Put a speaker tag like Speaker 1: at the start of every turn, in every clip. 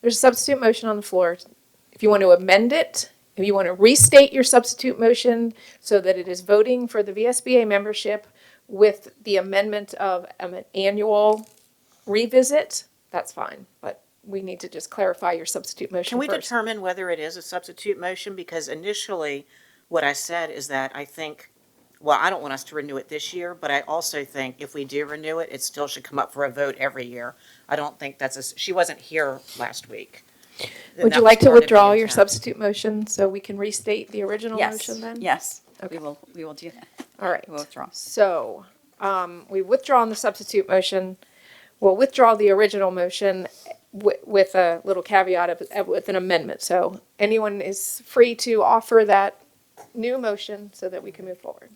Speaker 1: There's a substitute motion on the floor. If you want to amend it, if you want to restate your substitute motion so that it is voting for the VSBA membership with the amendment of an annual revisit, that's fine. But we need to just clarify your substitute motion
Speaker 2: Can we
Speaker 1: first.
Speaker 2: determine whether it is a substitute motion? Because initially, what I said is that I think, well, I don't want us to renew it this year, but I also think if we do renew it, it still should come up for a vote every year. I don't think that's a, s- she wasn't here last week. And
Speaker 1: Would
Speaker 2: that
Speaker 1: you
Speaker 2: was
Speaker 1: like to
Speaker 2: part of the
Speaker 1: withdraw your
Speaker 2: intent.
Speaker 1: substitute motion so we can restate the original motion then?
Speaker 3: Yes, we will, we will do that.
Speaker 1: All right.
Speaker 3: We'll withdraw.
Speaker 1: So, um, we withdraw on the substitute motion. We'll withdraw the original motion wi- with a little caveat of, of- with an amendment. So anyone is free to offer that new motion so that we can move forward.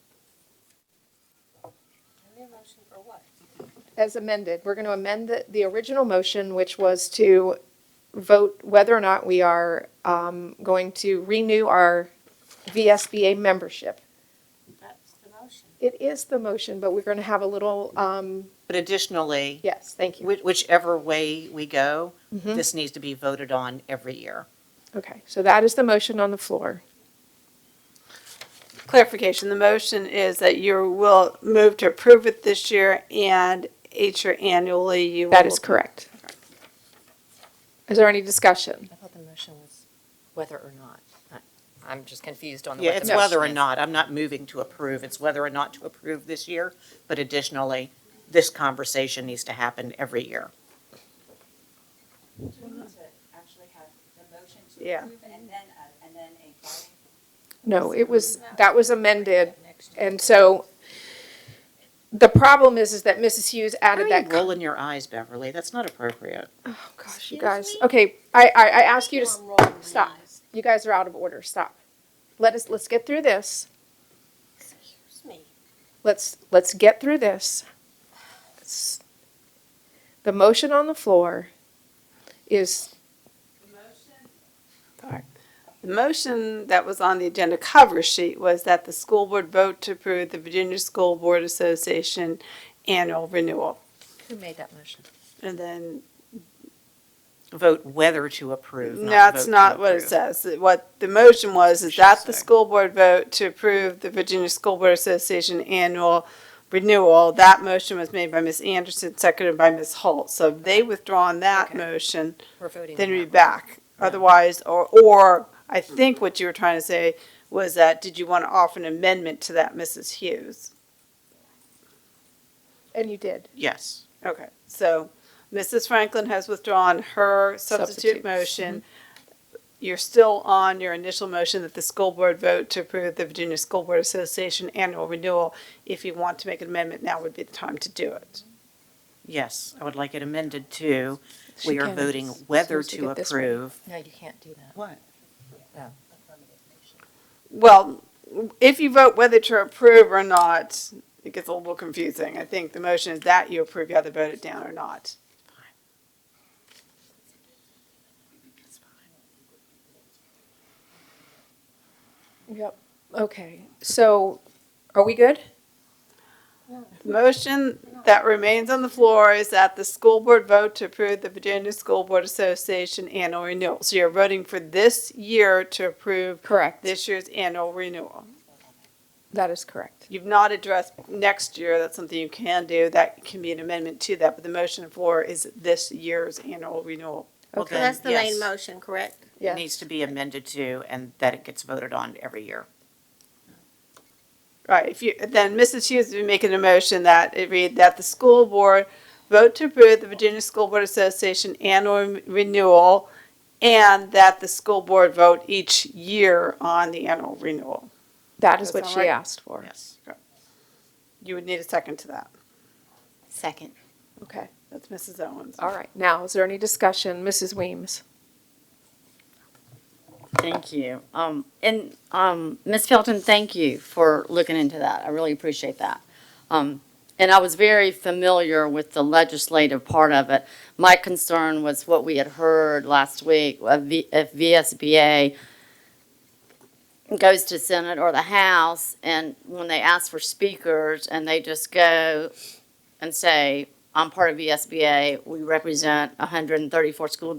Speaker 1: As amended, we're going to amend the, the original motion, which was to vote whether or not we are, um, going to renew our VSBA membership. It is the motion, but we're going to have a little, um,
Speaker 2: But additionally,
Speaker 1: yes, thank you.
Speaker 2: whi- whichever way we go,
Speaker 1: Mm-hmm.
Speaker 2: this needs to be voted on every year.
Speaker 1: Okay, so that is the motion on the floor.
Speaker 4: Clarification, the motion is that you will move to approve it this year and each year annually you will.
Speaker 1: That is correct. Is there any discussion?
Speaker 5: I thought the motion was whether or not. I- I'm just confused on the.
Speaker 2: Yeah,
Speaker 5: what the
Speaker 2: it's whether or
Speaker 5: motion is.
Speaker 2: not, I'm not moving to approve, it's whether or not to approve this year, but additionally, this conversation needs to happen every year.
Speaker 6: Do we need to actually have the motion to
Speaker 4: Yeah.
Speaker 6: approve and then, a- and then a voting?
Speaker 1: No, it was, that was amended. And so the problem is, is that Mrs. Hughes
Speaker 2: How
Speaker 1: added
Speaker 2: are
Speaker 1: that.
Speaker 2: you
Speaker 1: co-
Speaker 2: rolling your eyes, Beverly? That's not appropriate.
Speaker 1: Oh, gosh, you guys, okay, I, I, I ask you to s- stop. You guys are out of order. Stop. Let us, let's get through this. Let's, let's get through this. S- The motion on the floor is
Speaker 4: The motion that was on the agenda cover sheet was that the school board vote to approve the Virginia School Board Association annual renewal.
Speaker 5: Who made that motion?
Speaker 4: And then,
Speaker 2: Vote whether to approve,
Speaker 4: no,
Speaker 2: not vote
Speaker 4: that's
Speaker 2: to
Speaker 4: not what it
Speaker 2: approve.
Speaker 4: says. What the motion was is
Speaker 2: Should
Speaker 4: that the
Speaker 2: say.
Speaker 4: school board vote to approve the Virginia School Board Association annual renewal. That motion was made by Ms. Anderson, seconded by Ms. Holt. So if they withdrawn that
Speaker 5: Okay.
Speaker 4: motion,
Speaker 5: We're voting. on
Speaker 4: then
Speaker 5: that
Speaker 4: be
Speaker 5: one.
Speaker 4: back. Otherwise, or, or I think what you were trying to say was that, did you want to offer an amendment to that, Mrs. Hughes?
Speaker 1: And you did.
Speaker 2: Yes.
Speaker 4: Okay, so Mrs. Franklin has withdrawn her
Speaker 1: Substitute.
Speaker 4: substitute motion. You're still on your initial motion that the school board vote to approve the Virginia School Board Association annual renewal. If you want to make an amendment, now would be the time to do it.
Speaker 2: Yes, I would like it amended to,
Speaker 1: She
Speaker 2: we are
Speaker 1: can.
Speaker 2: voting
Speaker 1: She
Speaker 2: whether
Speaker 1: needs to
Speaker 2: to
Speaker 1: get this one.
Speaker 2: approve.
Speaker 5: No, you can't do that.
Speaker 2: What?
Speaker 4: Well, if you vote whether to approve or not, it gets a little confusing. I think the motion is that you approve, you either vote it down or not.
Speaker 1: Yep. Okay, so are we good?
Speaker 4: The motion that remains on the floor is that the school board vote to approve the Virginia School Board Association annual renewal. So you're voting for this year to approve
Speaker 1: Correct.
Speaker 4: this year's annual renewal.
Speaker 1: That is correct.
Speaker 4: You've not addressed next year, that's something you can do, that can be an amendment to that, but the motion on the floor is this year's annual renewal.
Speaker 2: Well,
Speaker 1: Okay.
Speaker 2: then,
Speaker 7: That's the main
Speaker 2: yes,
Speaker 7: motion, correct?
Speaker 2: It
Speaker 1: Yes.
Speaker 2: needs to be amended to, and that it gets voted on every year.
Speaker 4: Right, if you, then Mrs. Hughes would be making a motion that it read that the school board vote to approve the Virginia School Board Association annual renewal and that the school board vote each year on the annual renewal.
Speaker 1: That is
Speaker 4: Does
Speaker 1: what
Speaker 4: that
Speaker 1: she
Speaker 4: work?
Speaker 1: asked for.
Speaker 2: Yes.
Speaker 4: You would need a second to that.
Speaker 7: Second.
Speaker 1: Okay,
Speaker 4: That's Mrs. Owens.
Speaker 1: all right. Now, is there any discussion? Mrs. Weems?
Speaker 3: Thank you. Um, and, um, Ms. Felton, thank you for looking into that. I really appreciate that. Um, and I was very familiar with the legislative part of it. My concern was what we had heard last week, of V- if VSBA goes to Senate or the House, and when they ask for speakers, and they just go and say, I'm part of VSBA, we represent 134 school